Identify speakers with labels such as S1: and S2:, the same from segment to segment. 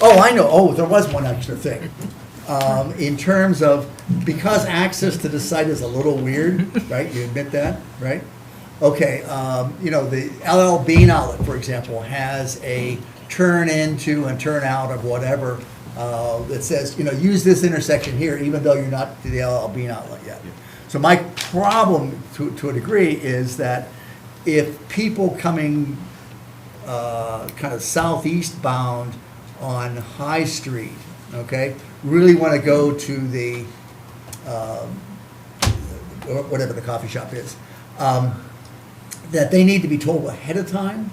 S1: Oh, I know, oh, there was one extra thing. Um, in terms of, because access to the site is a little weird, right, you admit that, right? Okay, um, you know, the LL Bean outlet, for example, has a turn into and turn out of whatever, uh, that says, you know, use this intersection here, even though you're not to the LL Bean outlet yet. So my problem to, to a degree is that if people coming uh, kind of southeast bound on High Street, okay? Really want to go to the, um, or whatever the coffee shop is, um, that they need to be told ahead of time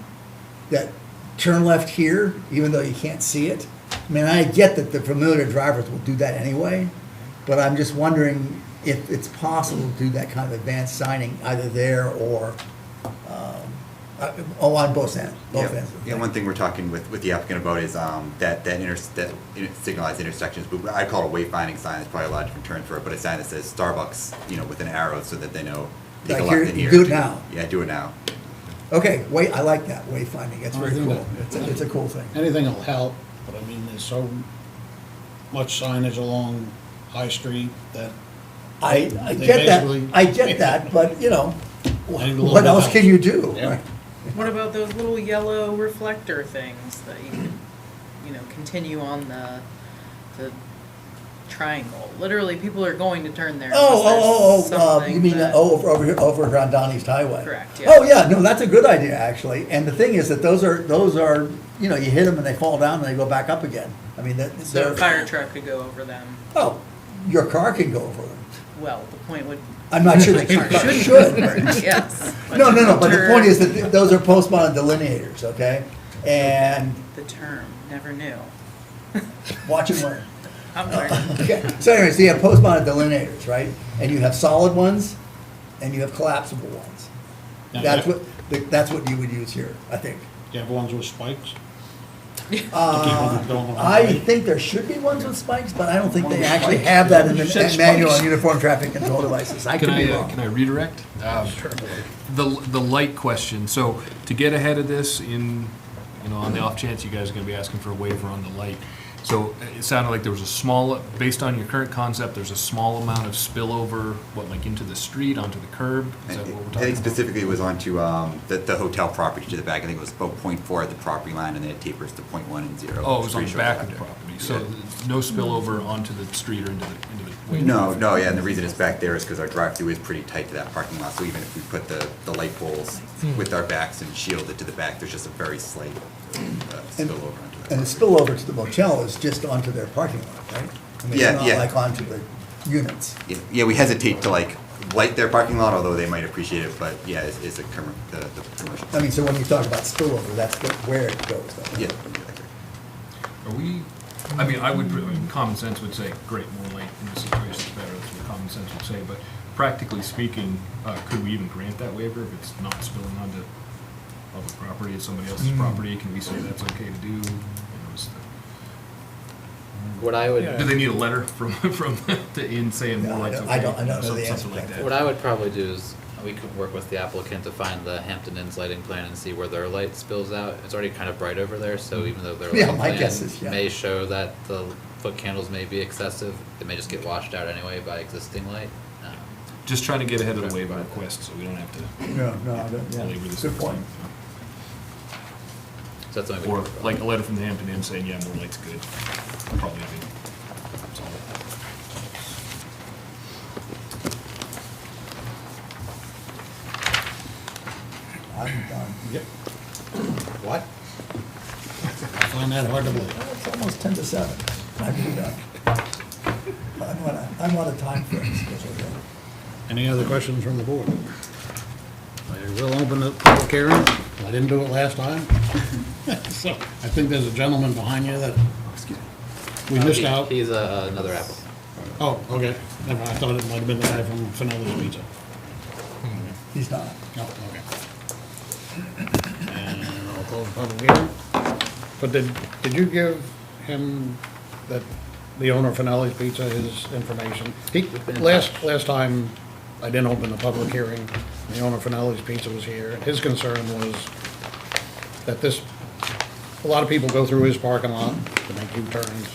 S1: that turn left here, even though you can't see it. I mean, I get that the familiar drivers will do that anyway, but I'm just wondering if it's possible to do that kind of advanced signing either there or, um, uh, oh, on both ends, both
S2: Yeah,
S1: ends.
S2: yeah, one thing we're talking with, with the applicant about is, um, that, that inter, that in- signalized intersections, but I call it a wayfinding sign, there's probably a lot of different terms for it, but a sign that says Starbucks, you know, with an arrow so that they know. take a
S1: Like
S2: left
S1: here,
S2: in
S1: you do it
S2: Do-
S1: now.
S2: Yeah, do it now.
S1: Okay, wait, I like that, wayfinding, it's
S3: I
S1: very
S3: think
S1: cool.
S3: that-
S1: It's a, it's a cool thing.
S3: Anything will help, but I mean, there's so much signage along High Street that
S1: I, I
S3: They
S1: get that,
S3: basically-
S1: I get that, but, you know,
S3: Maybe a little
S1: what
S3: bit
S1: else
S3: out.
S1: can you do?
S3: Yeah.
S1: right?
S4: What about those little yellow reflector things that you can, you know, continue on the, the triangle? Literally, people are going to turn there.
S1: Oh, oh, oh,
S4: unless there's
S1: oh, uh, you
S4: something
S1: mean, uh,
S4: that-
S1: oh, over, over here, over here on Donnie's Highway?
S4: Correct, yeah.
S1: Oh, yeah, no, that's a good idea, actually, and the thing is that those are, those are, you know, you hit them and they fall down and they go back up again. I mean, that,
S4: So a
S1: they're,
S4: fire truck could go over them.
S1: oh, your car can go over them.
S4: Well, the point would.
S1: I'm not sure
S4: My
S1: that your
S4: car
S1: car
S4: shouldn't.
S1: should, right?
S4: Yes.
S1: No, no, no, but the
S4: Turn-
S1: point is that th- those are postmodern delineators, okay? And
S4: The term, never knew.
S1: watch and learn.
S4: I'm learning.
S1: Okay, so anyways, you have postmodern delineators, right? And you have solid ones, and you have collapsible ones.
S3: Yeah.
S1: That's what, that's what you would use here, I think.
S3: you have ones with spikes.
S1: Uh,
S3: Keep them going.
S1: I think there should be ones with spikes, but I don't think they actually have that in
S3: You said
S1: the manual on
S3: spikes.
S1: uniform traffic control devices. I
S5: Can
S1: could
S5: I,
S1: be
S5: uh, can I
S1: wrong.
S5: redirect? Um, The, the light question, so to get ahead of this in, you know, on the off chance you guys are gonna be asking for a waiver on the light. So it sounded like there was a small, based on your current concept, there's a small amount of spillover, what, like into the street, onto the curb? Is that what we're
S2: I
S5: talking
S2: think
S5: about?
S2: specifically it was onto, um, the, the hotel property to the back, I think it was about point four at the property line, and then it tapers to point one and zero.
S5: Oh, it was on
S2: Pretty
S5: the
S2: sure
S5: back of the
S2: it's
S5: property,
S2: there.
S5: so
S2: Yeah.
S5: no spillover onto the street or into the, into the. way.
S2: No, no, yeah, and the reason it's back there is because our drive-through is pretty tight to that parking lot, so even if we put the, the light poles
S1: Hmm.
S2: with our backs and shield it to the back, there's just a very slight uh,
S1: And-
S2: spillover onto that.
S1: And the
S2: property.
S1: spillover to the motel is just onto their parking lot, right? I mean, it's
S2: Yeah,
S1: not
S2: yeah.
S1: Like onto the units.
S2: Yeah, Yeah, we hesitate to like light their parking lot, although they might appreciate it, but yeah, it's, it's a commer, the, the commercial.
S1: I mean, so when you talk about spillover, that's the- where it goes. though.
S2: Yeah. exactly.
S5: Are we, I mean, I would, I mean, common sense would say, great, more light in this situation is better, that's what common sense would say, but practically speaking, uh, could we even grant that waiver if it's not spilling onto public property, it's somebody else's
S1: Hmm.
S5: property, can we say that's okay to do? You know, is the-
S6: What I would,
S5: Do they need a letter from, from, the in saying more
S1: No, I
S5: light's
S1: don't-
S5: okay?
S1: I don't- I don't know
S5: Some-
S1: the answer
S5: something
S1: to
S5: like
S1: that.
S5: that.
S6: what I would probably do is, we could work with the applicant to find the Hampton Inn's lighting plan and see where their light spills out. It's already kind of bright over there, so even though their
S1: Yeah, my
S6: light
S1: guess is, yeah.
S6: plan may show that the foot candles may be excessive, it may just get washed out anyway by existing light. Um,
S5: Just trying to get ahead of the waiver request, so we don't have to
S1: No, no, I don't- yeah.
S5: labor this.
S1: Good point.
S6: So that's something we
S5: Or
S6: could work on.
S5: like a letter from the Hampton Inn saying, yeah, more light's good, probably. That's all.
S1: I'm done.
S3: Yep.
S6: What?
S3: I find that hard to believe.
S1: It's almost ten to seven. I'm done. I'm on a, I'm on a time frame.
S3: Any other questions from the board? I will open the public hearing. I didn't do it last time. So I think there's a gentleman behind you that we missed
S6: Oh, He-
S3: out.
S6: He's uh, another applicant.
S3: Oh, okay. Never mind. I thought it might have been the guy from Finelli's Pizza.
S1: He's not.
S3: No, okay. And I'll close the public hearing. But did, did you give him, that, the owner of Finelli's Pizza, his information? He,
S6: been in
S3: last,
S6: touch.
S3: last time, I didn't open the public hearing, the owner of Finelli's Pizza was here. His concern was that this a lot of people go through his parking lot to make U-turns.